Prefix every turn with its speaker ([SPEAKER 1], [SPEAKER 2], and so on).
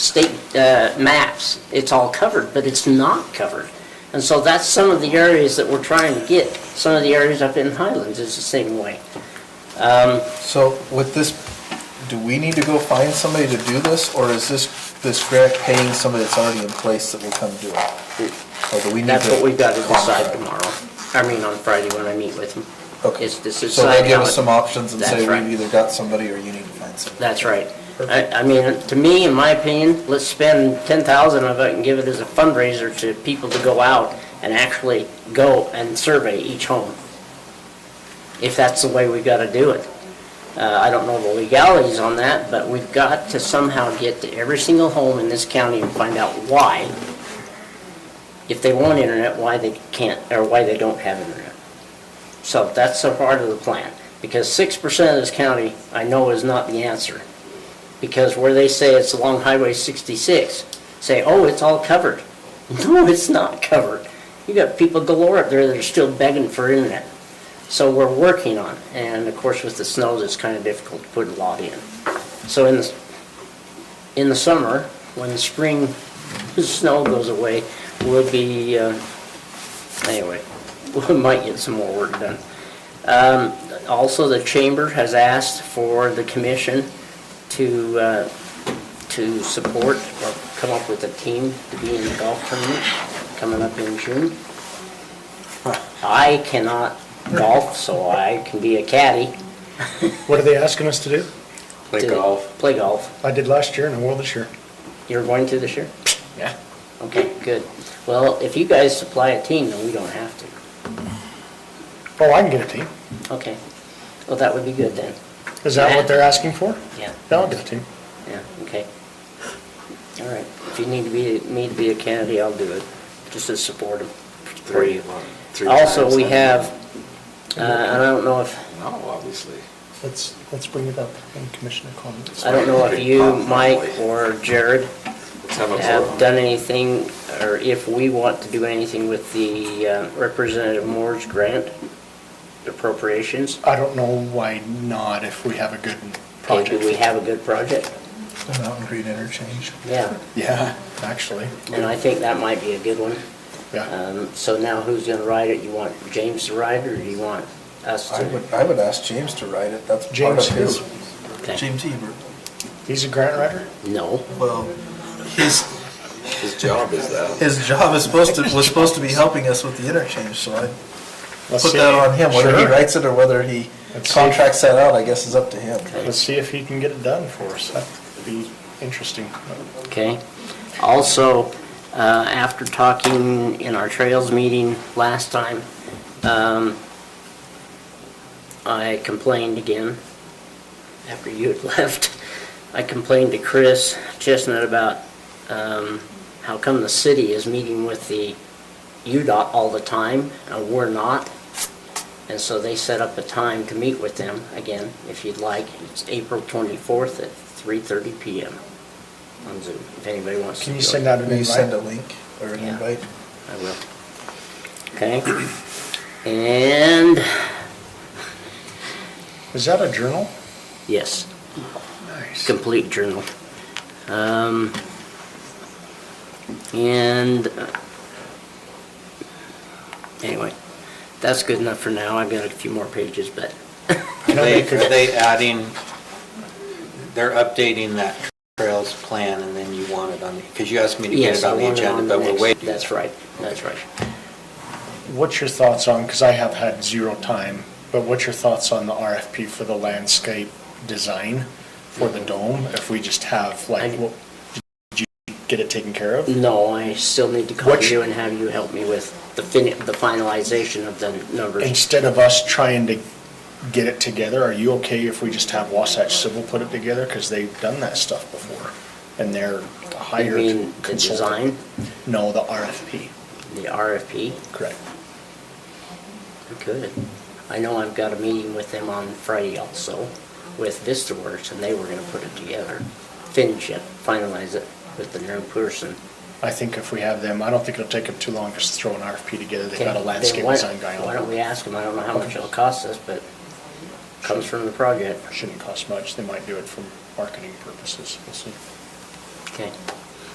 [SPEAKER 1] state uh, maps, it's all covered, but it's not covered. And so that's some of the areas that we're trying to get. Some of the areas up in Highlands is the same way.
[SPEAKER 2] So with this, do we need to go find somebody to do this, or is this, this grant paying somebody that's already in place that will come do it? Or do we need
[SPEAKER 1] That's
[SPEAKER 2] to
[SPEAKER 1] what we've got to decide
[SPEAKER 2] contract?
[SPEAKER 1] tomorrow, I mean, on Friday when I meet with them.
[SPEAKER 2] Okay.
[SPEAKER 1] Is to
[SPEAKER 2] So
[SPEAKER 1] decide
[SPEAKER 2] they give
[SPEAKER 1] how
[SPEAKER 2] us
[SPEAKER 1] it-
[SPEAKER 2] some options and
[SPEAKER 1] That's
[SPEAKER 2] say,
[SPEAKER 1] right.
[SPEAKER 2] we've either got somebody or you need to find somebody.
[SPEAKER 1] That's right. I, I mean, to me, in my opinion, let's spend ten thousand of it and give it as a fundraiser to people to go out and actually go and survey each home. If that's the way we gotta do it. Uh, I don't know the legalities on that, but we've got to somehow get to every single home in this county and find out why. If they want internet, why they can't, or why they don't have internet. So that's a part of the plan, because six percent of this county, I know, is not the answer. Because where they say it's along Highway sixty-six, say, oh, it's all covered. No, it's not covered. You got people galore up there that are still begging for internet. So we're working on, it. and of course with the snows, it's kind of difficult to put a lot in. So in, the- in the summer, when the spring snow goes away, we'll be, uh, anyway, we might get some more work done. Um, Also, the chamber has asked for the commission to, uh, to support or come up with a team to be in the golf tournament coming up in June. I cannot golf, so I can be a caddy.
[SPEAKER 3] What are they asking us to do?
[SPEAKER 1] Play golf. Play golf.
[SPEAKER 3] I did last year and I will this year.
[SPEAKER 1] You're going to this year?
[SPEAKER 3] Yeah.
[SPEAKER 1] Okay, good. Well, if you guys supply a team, then we don't have to.
[SPEAKER 3] Oh, I can get a team.
[SPEAKER 1] Okay. Well, that would be good then.
[SPEAKER 3] Is that what they're asking for?
[SPEAKER 1] Yeah.
[SPEAKER 3] Yeah, I'll get a team.
[SPEAKER 1] Yeah, okay. All right, if you need to be, me to be a candidate, I'll do it, just to support him. for you. Also, we have, uh, and I don't know if,
[SPEAKER 4] No, obviously.
[SPEAKER 3] Let's, let's bring it up in commissioner comments.
[SPEAKER 1] I don't know if you, Mike, or Jared
[SPEAKER 4] Let's have a
[SPEAKER 1] have
[SPEAKER 4] vote.
[SPEAKER 1] done anything, or if we want to do anything with the uh, Representative Moore's grant appropriations.
[SPEAKER 3] I don't know why not if we have a good
[SPEAKER 1] Okay,
[SPEAKER 3] project.
[SPEAKER 1] Do we have a good project?
[SPEAKER 2] The Mountain Green Interchange.
[SPEAKER 1] Yeah,
[SPEAKER 3] Yeah, actually,
[SPEAKER 1] and I think that might be a good one.
[SPEAKER 3] yeah.
[SPEAKER 1] Um, So now who's going to write it? You want James to write it, or do you want us to?
[SPEAKER 2] I would, I would ask James to write it, that's part of
[SPEAKER 3] James
[SPEAKER 2] his.
[SPEAKER 3] who?
[SPEAKER 1] Okay.
[SPEAKER 2] James Hebert.
[SPEAKER 3] He's a grant writer?
[SPEAKER 1] No.
[SPEAKER 2] Well, his,
[SPEAKER 4] His job is that.
[SPEAKER 2] his job is supposed to, was supposed to be helping us with the interchange, so I
[SPEAKER 3] Let's
[SPEAKER 2] put
[SPEAKER 3] see.
[SPEAKER 2] that on him. Whether he
[SPEAKER 3] Sure.
[SPEAKER 2] writes it or whether he
[SPEAKER 3] Let's see.
[SPEAKER 2] contracts that out, I guess is up to him.
[SPEAKER 3] Let's see if he can get it done for us. That'd be interesting.
[SPEAKER 1] Okay. Also, uh, after talking in our trails meeting last time, um, I complained again after you had left. I complained to Chris Chestnut about um, how come the city is meeting with the UDOT all the time and we're not. And so they set up a time to meet with them again, if you'd like. It's April 24th at 3:30 PM on Zoom, if anybody wants to.
[SPEAKER 3] Can you
[SPEAKER 1] join.
[SPEAKER 3] send out an
[SPEAKER 2] Will you send a
[SPEAKER 3] invite?
[SPEAKER 2] link or an
[SPEAKER 1] Yeah.
[SPEAKER 2] invite?
[SPEAKER 1] I will. Okay? And,
[SPEAKER 3] Is that a journal?
[SPEAKER 1] yes,
[SPEAKER 3] Nice.
[SPEAKER 1] complete journal. Um, and, uh, anyway, that's good enough for now. I've got a few more pages, but,
[SPEAKER 3] Can I
[SPEAKER 5] They,
[SPEAKER 3] make
[SPEAKER 5] are
[SPEAKER 3] a,
[SPEAKER 5] they adding, they're updating that trails plan and then you want it on, because you asked me to get
[SPEAKER 1] yes,
[SPEAKER 5] it
[SPEAKER 1] I
[SPEAKER 5] on the
[SPEAKER 1] want it
[SPEAKER 5] agenda,
[SPEAKER 1] on the
[SPEAKER 5] but we're
[SPEAKER 1] next.
[SPEAKER 5] waiting.
[SPEAKER 1] That's right, that's right.
[SPEAKER 3] what's your thoughts on, because I have had zero time, but what's your thoughts on the RFP for the landscape design for the dome? If we just have like,
[SPEAKER 1] I-
[SPEAKER 3] what, did you get it taken care of?
[SPEAKER 1] No, I still need to call
[SPEAKER 3] What sh-
[SPEAKER 1] you and have you help me with the fin, the finalization of the numbers.
[SPEAKER 3] Instead of us trying to get it together, are you okay if we just have Wasatch Civil put it together? Because they've done that stuff before and they're
[SPEAKER 1] You
[SPEAKER 3] hired
[SPEAKER 1] mean the
[SPEAKER 3] consultant.
[SPEAKER 1] design,
[SPEAKER 3] No, the RFP,
[SPEAKER 1] the RFP?
[SPEAKER 3] correct.
[SPEAKER 1] We could. I know I've got a meeting with them on Friday also with Vista Works, and they were gonna put it together, finish it, finalize it with the new person.
[SPEAKER 3] I think if we have them, I don't think it'll take them too long just to throw an RFP together. They've got a
[SPEAKER 1] Okay,
[SPEAKER 3] landscape
[SPEAKER 1] then why-
[SPEAKER 3] design guy on.
[SPEAKER 1] Why don't we ask them? I don't know how much it'll cost us, but comes from the project.
[SPEAKER 3] Shouldn't cost much, they might do it for marketing purposes, we'll see.
[SPEAKER 1] Okay.